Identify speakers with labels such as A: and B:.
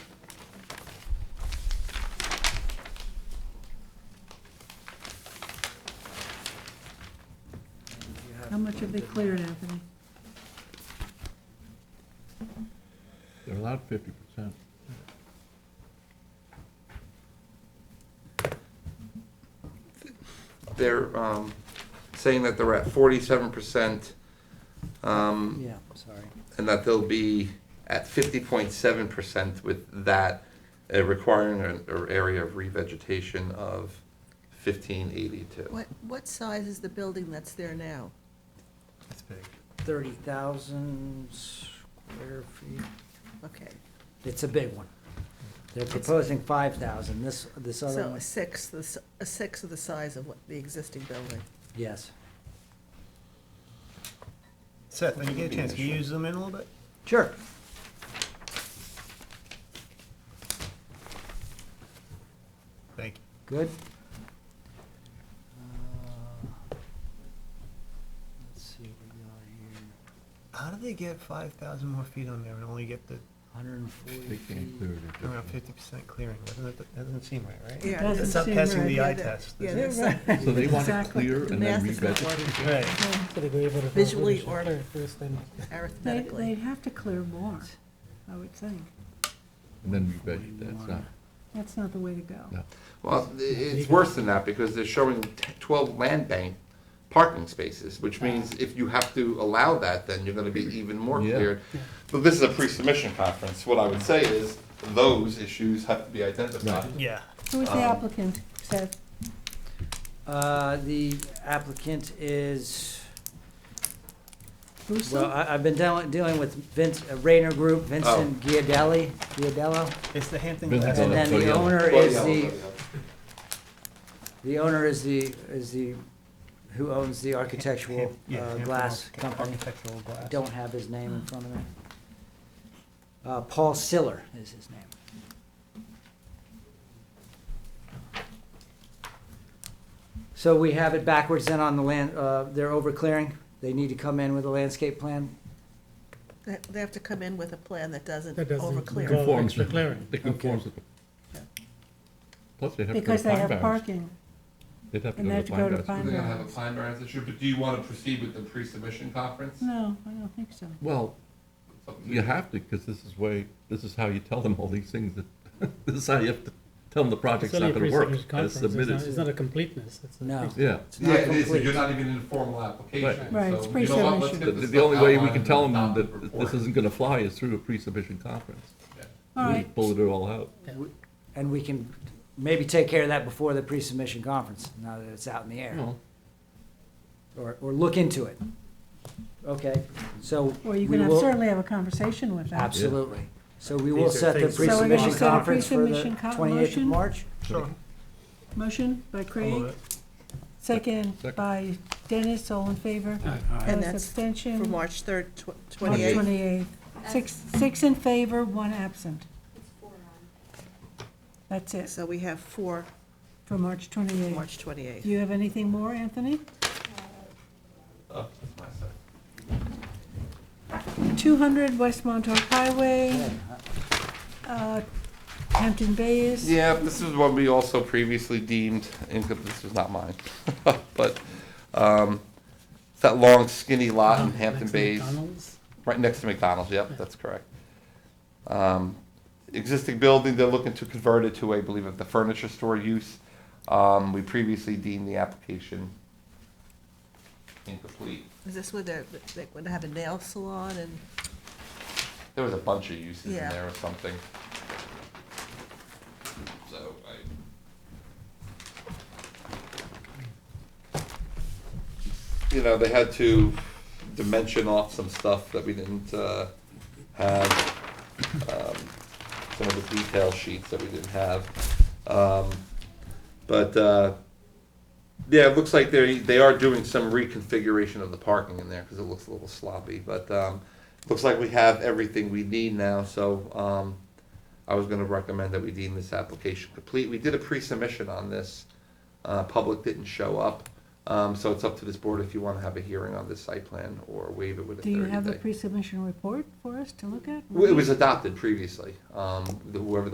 A: much have they cleared, Anthony?
B: They're allowed fifty percent.
C: They're um, saying that they're at forty-seven percent, um, and
D: Yeah, sorry.
C: that they'll be at fifty point seven percent with that, uh, requiring an an area of revegetation of fifteen eighty-two.
E: What, what size is the building that's there now?
F: That's big.
D: Thirty thousand square feet.
E: Okay,
D: It's a big one. They're proposing five thousand. This, this other
E: so
D: one,
E: a sixth, the s- a sixth of the size of what, the existing building?
D: yes.
F: Seth, when you get a chance, can you zoom in a little bit?
D: Sure.
F: Thank you.
D: Good. Uh, Let's see what we got here.
F: How do they get five thousand more feet on there and only get the
D: Hundred and forty
B: They can't clear
D: feet.
B: it. if
F: around
B: they-
F: fifty percent clearing? Doesn't it, that doesn't seem right, right?
E: Yeah,
A: Doesn't
F: It's not
A: seem
F: passing
A: right.
F: the
E: Yeah,
F: eye
E: that-
F: test.
E: yeah,
F: is
E: that's-
F: it?
B: So they want it
A: Exactly.
B: clear
E: The
B: and then
E: math is not
B: revegetate.
E: working.
F: Right.
G: So they were able to vote
E: Visually
G: whether
E: or-
G: to clear first, then
A: They, they'd
E: Arithmetically,
A: have to clear more, I would think.
B: And then revegetate, that's not,
A: That's not the way to go.
B: no.
C: Well, i- it's worse than that, because they're showing t- twelve land bank parking spaces, which means if you have to allow that, then you're gonna be even more
B: Yeah.
C: clear. But this is a pre-submission conference, what I would say is, those issues have to be identified.
B: Right.
F: Yeah.
A: Who is the
C: Um,
A: applicant, Seth?
D: Uh, the applicant is, well,
A: Russo?
D: I, I've been dealing, dealing with Vince, uh, Rayner Group, Vincent Giardelli, Giardello.
F: It's the Hampton
B: Been
F: Glass.
B: there.
D: And then
B: so
D: the
B: yeah.
D: owner
C: Well,
D: is
C: yeah,
D: the,
C: well, yeah.
D: the owner is the, is the, who owns the architectural,
F: Yeah,
D: uh,
F: Hampton
D: glass
F: Arch-
D: company.
F: Architectural glass.
D: Don't have his name in front of me. Uh, Paul Siller is his name. So we have it backwards then on the land, uh, they're overclearing. They need to come in with a landscape plan.
E: they they have to come in with a plan that doesn't
G: that doesn't
E: overclear.
G: involve
B: Conforms
G: extra
B: with-
G: clearing.
B: It conforms with.
E: Yeah.
B: Plus they have to go
A: Because
B: to
A: they
B: pine
A: have
B: barrens.
A: parking.
B: They'd have to
A: and
B: go
A: they
B: to pine barrens.
A: pine-
C: We're gonna have a pine barrens issue, but do you wanna proceed with the pre-submission conference?
A: No, I don't think so.
B: Well, you have to, because this is way, this is how you tell them all these things that, this is how you have to tell them the
G: It's
B: project's
G: only
B: not
G: a
B: gonna work.
G: pre-submission
B: It's
G: conference, it's not, it's
B: submitted,
G: not a completeness, it's a.
D: No.
G: pre-submission.
B: yeah.
D: It's
C: Yeah,
D: not
C: it is,
D: complete.
C: you're not even in a formal application,
B: Right.
A: Right, it's
C: so, you know what, let's
A: pre-submission.
C: get
B: The,
C: this
B: the only way we
C: outlined
B: can
C: and
B: tell them
C: adopt the
B: that
C: report.
B: this isn't gonna fly is through a pre-submission conference.
A: All
B: We
A: right,
B: just Bullet it all out.
D: And we can maybe take care of that before the pre-submission conference, now that it's out in the air.
B: Well,
D: Or, or look into it. Okay, so.
A: well, you
D: we
A: can have-
D: will-
A: certainly have a conversation with them.
D: Absolutely. So we
F: These
D: will
F: are
D: set the
F: things that-
A: So we're gonna
D: pre-submission
A: set a
D: conference for the
A: pre-submission co-
D: twenty-eighth of
A: motion?
D: March?
F: Sure.
A: Motion by
F: I'll
A: Craig,
F: move it.
A: second
B: Second.
A: by Dennis, all in favor?
E: And
A: Opposed,
E: that's for
A: abstention.
E: March 3rd, tw-
A: March
E: 28th.
A: 28th. Six, six in favor, one absent. That's it,
E: So we have four,
A: for March 28th.
E: March
A: Do
E: 28th.
A: you have anything more, Anthony?
C: Oh, that's my side.
A: 200 West Montauk Highway, uh, Hampton Bayes.
C: Yeah, this is what we also previously deemed, and this was not mine, but, um, it's that long skinny lot in
G: Uh,
C: Hampton
G: next to
C: Bays,
G: McDonald's.
C: right next to McDonald's, yep, that's correct. Um, existing building, they're looking to convert it to, I believe, of the furniture store use. Um, we previously deemed the application incomplete.
E: Is this where they're, they're going to have a nail salon and,
C: There was a bunch of uses in
E: Yeah.
C: there or something. So I. You know, they had to dimension off some stuff that we didn't, uh, have. Um, Some of the detail sheets that we didn't have. Um, But, uh, yeah, it looks like they, they are doing some reconfiguration of the parking in there, because it looks a little sloppy, but, um, looks like we have everything we need now, so, um, I was gonna recommend that we deem this application complete. We did a pre-submission on this, uh, public didn't show up, um, so it's up to this board if you wanna have a hearing on this site plan or waive it within
A: Do
C: thirty
A: you
C: days.
A: have a pre-submission report for us to look at?
C: Well, It was adopted previously, um, whoever the